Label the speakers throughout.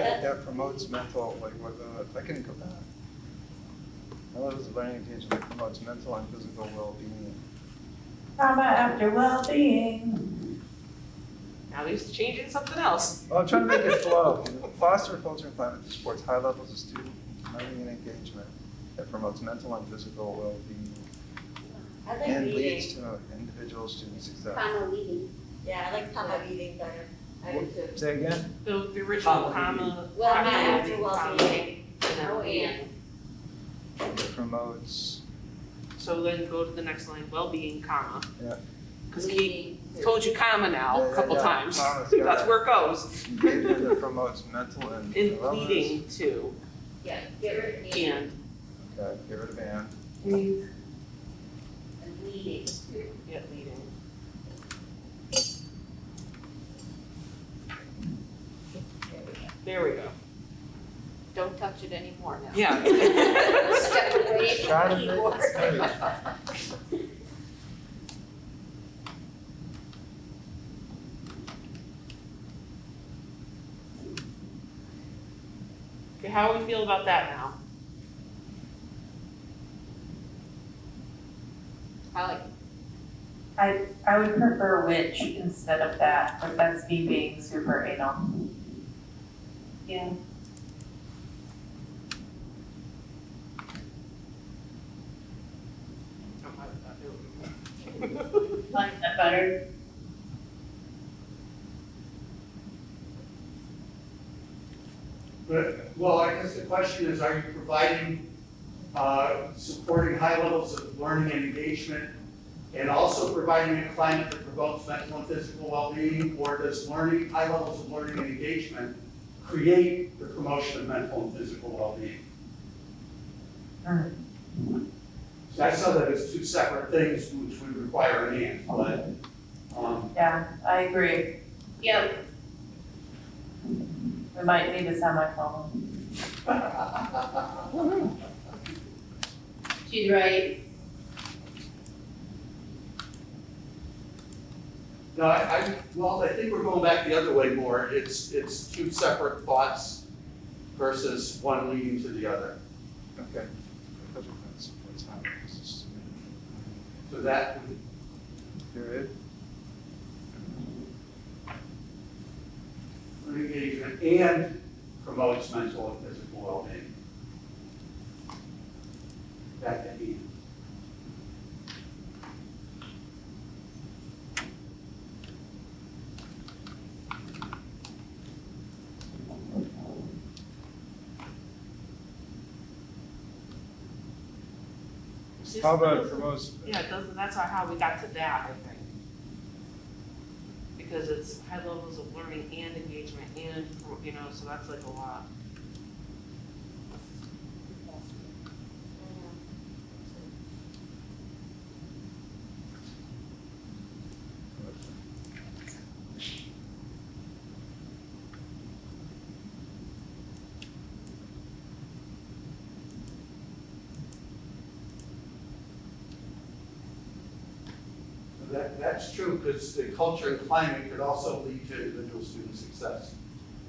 Speaker 1: that promotes mental, like with, uh, if I can go back. I love this learning engagement that promotes mental and physical well-being.
Speaker 2: Trauma after well-being.
Speaker 3: Now he's changing something else.
Speaker 1: Well, I'm trying to make it flow. Foster a culture and climate that supports high levels of student learning and engagement that promotes mental and physical well-being
Speaker 4: I like
Speaker 1: and leads
Speaker 4: reading,
Speaker 1: to individual student success.
Speaker 4: comma reading.
Speaker 2: Yeah, I like
Speaker 4: comma
Speaker 2: reading better.
Speaker 4: I do too.
Speaker 1: Say again?
Speaker 3: The, the original
Speaker 5: Comma.
Speaker 3: comma.
Speaker 4: Well,
Speaker 3: comma
Speaker 4: not after
Speaker 3: reading, comma
Speaker 4: well-being.
Speaker 3: and
Speaker 4: Oh,
Speaker 3: reading.
Speaker 4: and.
Speaker 1: That promotes,
Speaker 3: So then go to the next line, well-being, comma.
Speaker 1: Yeah.
Speaker 3: Cause he
Speaker 4: reading.
Speaker 3: told you comma now
Speaker 1: Yeah,
Speaker 3: a
Speaker 1: yeah,
Speaker 3: couple
Speaker 1: yeah.
Speaker 3: times.
Speaker 1: Comma's got
Speaker 3: That's
Speaker 1: it.
Speaker 3: where it goes.
Speaker 1: engagement that promotes mental and.
Speaker 3: In
Speaker 1: wellness.
Speaker 3: leading to
Speaker 4: Yeah, get rid of and
Speaker 3: and.
Speaker 1: Okay, get rid of and.
Speaker 4: and leading.
Speaker 3: Yeah, leading. There we go.
Speaker 4: Don't touch it anymore now.
Speaker 3: Yeah.
Speaker 4: Step away
Speaker 1: Try to
Speaker 4: from
Speaker 1: make
Speaker 4: the
Speaker 1: it
Speaker 4: keyboard.
Speaker 3: Okay, how we feel about that now?
Speaker 4: I like,
Speaker 2: I, I would prefer which instead of that, but that's me being super anal. Yeah.
Speaker 3: I'm not- not doing it.
Speaker 2: Like that better?
Speaker 5: But, well, I guess the question is, are you providing, uh, supporting high levels of learning and engagement? And also providing a climate that promotes mental and physical well-being? Or does learning, high levels of learning and engagement create the promotion of mental and physical well-being?
Speaker 2: Hmm.
Speaker 5: So I saw that as two separate things which would require an and, but, um,
Speaker 2: Yeah, I agree.
Speaker 4: yeah,
Speaker 2: We might need to sound like home.
Speaker 4: she's right.
Speaker 5: No, I, I, well, I think we're going back the other way more. It's, it's two separate thoughts versus one leading to the other.
Speaker 1: Okay. Culture and climate supports high levels of student.
Speaker 5: So that,
Speaker 1: Period.
Speaker 5: learning engagement and promotes mental and physical well-being. Back to Ian.
Speaker 1: How about it promotes,
Speaker 3: Yeah, it doesn't, that's not how we got to that, I think. Because it's high levels of learning and engagement and, you know, so that's like a lot.
Speaker 4: Mm-hmm.
Speaker 5: So That, that's true, because the culture and climate could also lead to individual student success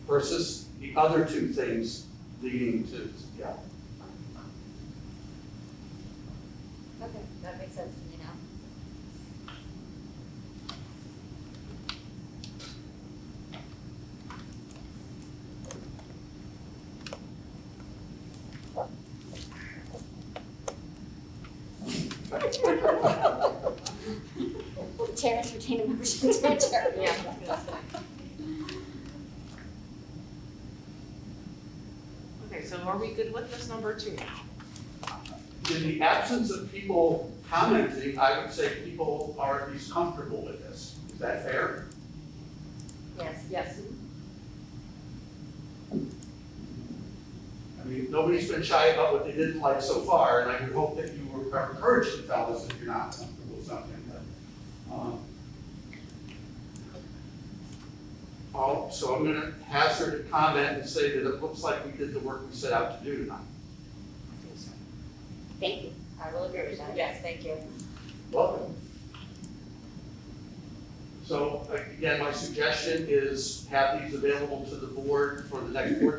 Speaker 5: versus the other two things leading to, yeah.
Speaker 4: Okay, that makes sense to me now. Will the chair entertain a member's intention? Yeah.
Speaker 3: Okay, so are we good with this number two now?
Speaker 5: In the absence of people commenting, I would say people are at least comfortable with this. Is that fair?
Speaker 4: Yes, yes.
Speaker 5: I mean, nobody's been shy about what they didn't like so far, and I would hope that you were encouraged to tell us if you're not comfortable with something, but, um. Oh, so I'm gonna hazard a comment and say that it looks like we did the work we set out to do tonight.
Speaker 4: Thank you. I will agree with that. Yes, thank you.
Speaker 5: Welcome. So, again, my suggestion is have these available to the board for the next board